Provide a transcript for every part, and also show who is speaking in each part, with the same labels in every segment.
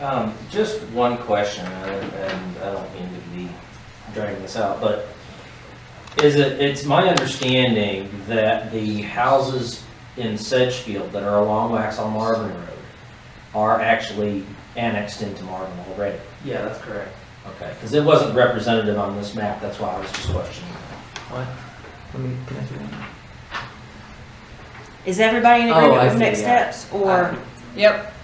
Speaker 1: Um, just one question, and and I don't mean to be dragging this out, but is it, it's my understanding that the houses in Sedgefield that are along Waxaw Marvin Road are actually annexed into Marvin already?
Speaker 2: Yeah, that's correct.
Speaker 1: Okay, because it wasn't representative on this map, that's why I was just questioning.
Speaker 2: Let me, can I see that?
Speaker 3: Is everybody in
Speaker 2: Oh,
Speaker 3: agreement
Speaker 2: I
Speaker 3: with
Speaker 2: see,
Speaker 3: next
Speaker 2: yeah.
Speaker 3: steps, or?
Speaker 4: Yep.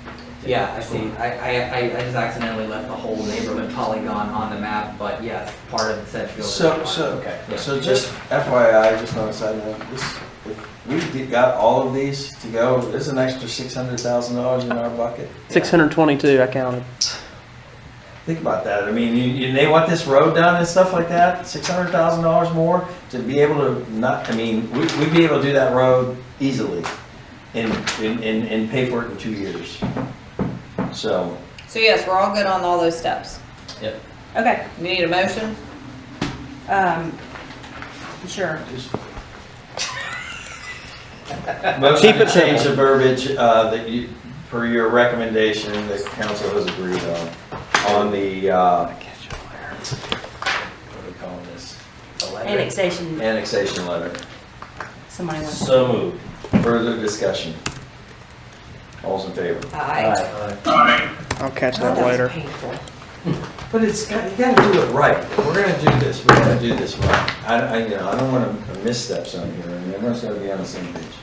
Speaker 2: Yeah, I see. I, I, I, I just accidentally left the whole neighborhood polygon on the map, but yes, part of the Sedgefield. is
Speaker 5: So,
Speaker 2: part.
Speaker 5: so,
Speaker 1: Okay.
Speaker 5: so just FYI, just on a side note, this, if we did- got all of these to go, there's an extra six hundred thousand dollars in our bucket.
Speaker 6: Six hundred twenty-two, I counted.
Speaker 5: Think about that. I mean, you, you, they want this road done and stuff like that, six hundred thousand dollars more to be able to not, I mean, we, we'd be able to do that road easily and, and, and and pay for it in two years. So,
Speaker 4: So yes, we're all good on all those steps.
Speaker 3: Okay,
Speaker 4: We need a motion?
Speaker 3: um, sure.
Speaker 5: just. Motion to
Speaker 6: it
Speaker 5: change
Speaker 6: simple.
Speaker 5: the verbiage, uh, that you, per your recommendation, that council has agreed on, on the, uh, what are we calling this?
Speaker 3: Annexation,
Speaker 5: Annexation letter.
Speaker 3: somebody wants.
Speaker 1: So moved.
Speaker 5: Further discussion? All's in favor?
Speaker 4: Aye.
Speaker 6: I'll catch
Speaker 3: God,
Speaker 6: that
Speaker 3: was
Speaker 6: later.
Speaker 3: painful.
Speaker 5: But it's, got- you gotta do it right. If we're gonna do this, we gotta do this right. I, I, you know, I don't wanna missteps on here, and everyone's gotta be on the same page.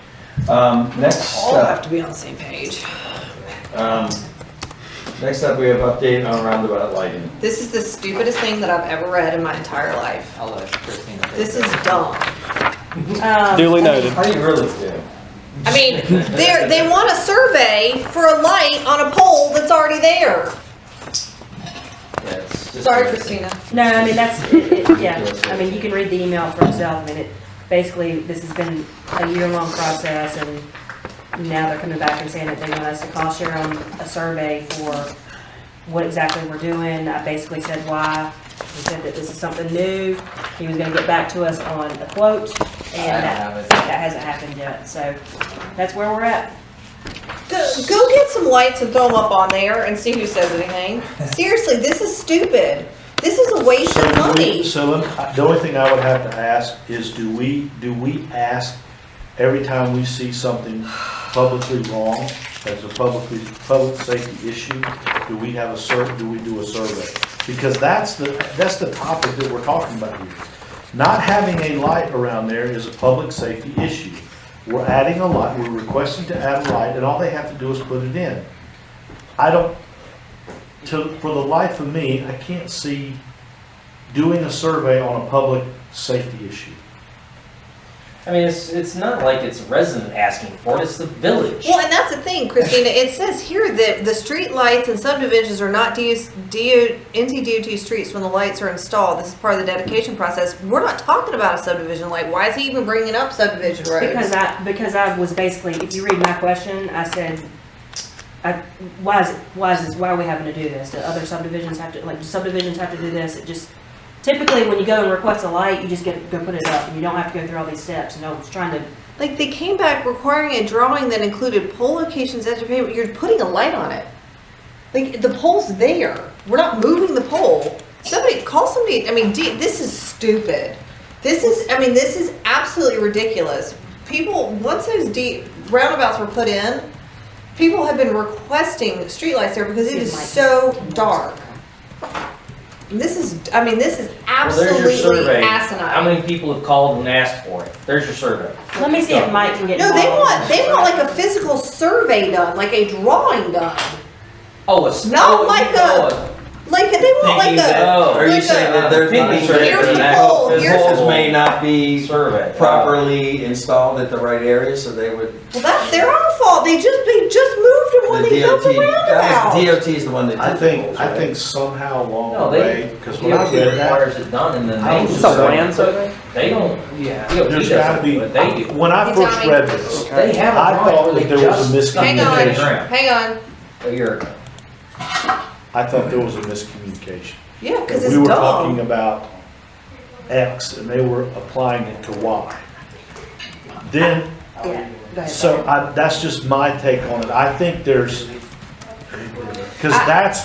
Speaker 5: Um, next
Speaker 4: All have
Speaker 5: up,
Speaker 4: to be on the same page.
Speaker 5: um, next up, we have update on roundabout lighting.
Speaker 4: This is the stupidest thing that I've ever read in my entire life.
Speaker 2: I'll let Christina. take
Speaker 4: This
Speaker 2: it.
Speaker 4: is dumb.
Speaker 3: Um,
Speaker 6: Duly noted.
Speaker 5: How do you really feel?
Speaker 4: I mean, they they want a survey for a light on a pole that's already there.
Speaker 2: Yeah, it's just-
Speaker 4: Sorry, Christina.
Speaker 3: No, I mean, that's, it- it- yeah, I mean, you can read the email for yourself, I mean, it, basically, this has been a year-long process, and now they're coming back and saying that they want us to cost share on a survey for what exactly we're doing, I basically said why, he said that this is something new, he was gonna get back to us on a quote,
Speaker 2: I don't
Speaker 3: and that,
Speaker 2: have it.
Speaker 3: that hasn't happened yet, so, that's where we're at.
Speaker 4: Go, go get some lights and throw them up on there and see who says anything. Seriously, this is stupid. This is a waste of
Speaker 7: So do
Speaker 4: money.
Speaker 7: we- So let me- the only thing I would have to ask is, do we, do we ask every time we see something publicly wrong, as a publicly, public safety issue, do we have a sur, do we do a survey? Because that's the, that's the topic that we're talking about here. Not having a light around there is a public safety issue. We're adding a light, we're requesting to add a light, and all they have to do is put it in. I don't, to, for the life of me, I can't see doing a survey on a public safety issue.
Speaker 1: I mean, it's, it's not like it's a resident asking for it, it's the village.
Speaker 4: Well, and that's the thing, Christina, it says here that the street lights and subdivisions are not DOS DO, NC DOT streets when the lights are installed. This is part of the dedication process. We're not talking about a subdivision light. Why is he even bringing up subdivision
Speaker 3: Because
Speaker 4: roads?
Speaker 3: I, because I was basically, if you read my question, I said, I, why is, it- why is this, why are we having to do this? Do other subdivisions have to, like, do subdivisions have to do this? It just, typically, when you go and request a light, you just get, go put it up, and you don't have to go through all these steps, and I was trying to,
Speaker 4: Like, they came back requiring a drawing that included pole locations, edge of pavement. You're putting a light on it. Like, the pole's there. We're not moving the pole. Somebody, call somebody, I mean, D- this is stupid. This is, I mean, this is absolutely ridiculous. People, once those D, roundabouts were put in, people have been requesting streetlights there because it is so dark. And This is, I mean, this is
Speaker 1: Well, there's your
Speaker 4: absolutely
Speaker 1: survey. How
Speaker 4: asinine.
Speaker 1: many people have called and asked for it? There's your survey.
Speaker 3: let me see if Mike can get
Speaker 4: No, they
Speaker 3: involved.
Speaker 4: want, they want like a physical survey done, like a drawing done.
Speaker 1: Oh, it's.
Speaker 4: Not
Speaker 1: oh,
Speaker 4: like
Speaker 1: oh,
Speaker 4: a- Like, they want like
Speaker 1: Thinking that-
Speaker 4: a,
Speaker 1: oh,
Speaker 5: Uh, Are you
Speaker 4: Like
Speaker 5: saying
Speaker 4: a-
Speaker 5: that there's not a
Speaker 1: Here's
Speaker 5: survey?
Speaker 4: the
Speaker 5: for that?
Speaker 4: poll,
Speaker 5: This
Speaker 4: here's
Speaker 5: this
Speaker 1: the-
Speaker 5: may not be
Speaker 1: survey.
Speaker 5: properly installed at the right area, so they would.
Speaker 4: well, that's their own fault. They just, they just moved them when
Speaker 5: The
Speaker 4: they built
Speaker 5: DOT,
Speaker 4: the
Speaker 5: that was,
Speaker 4: roundabout.
Speaker 5: DOT is the one that
Speaker 7: I
Speaker 5: did the
Speaker 7: think,
Speaker 5: polls,
Speaker 7: I
Speaker 5: right?
Speaker 7: think somehow
Speaker 1: No,
Speaker 7: along the
Speaker 1: they-
Speaker 7: way, because when I
Speaker 1: DOT
Speaker 7: read that,
Speaker 1: requires it done and then
Speaker 7: I
Speaker 1: they.
Speaker 7: was
Speaker 6: It's a land survey?
Speaker 1: They don't,
Speaker 2: Yeah.
Speaker 1: DOT
Speaker 7: there's gotta
Speaker 1: doesn't
Speaker 7: be,
Speaker 1: do it, they do.
Speaker 7: when I
Speaker 4: It's
Speaker 7: first
Speaker 4: on-
Speaker 7: read this,
Speaker 1: They have. a
Speaker 7: I
Speaker 1: drawing
Speaker 7: thought
Speaker 1: where
Speaker 7: that there was a
Speaker 1: just
Speaker 7: miscommunication.
Speaker 1: dug in the
Speaker 4: Hang on.
Speaker 1: ground
Speaker 4: Hang on.
Speaker 1: A year ago.
Speaker 7: I thought there was a miscommunication.
Speaker 4: Yeah, because
Speaker 7: We
Speaker 4: it's
Speaker 7: were talking
Speaker 4: dumb.
Speaker 7: about X and they were applying it to Y. Then
Speaker 3: Yeah, go ahead.
Speaker 7: So I, that's just my take on it. I think there's, because
Speaker 4: I-
Speaker 7: that's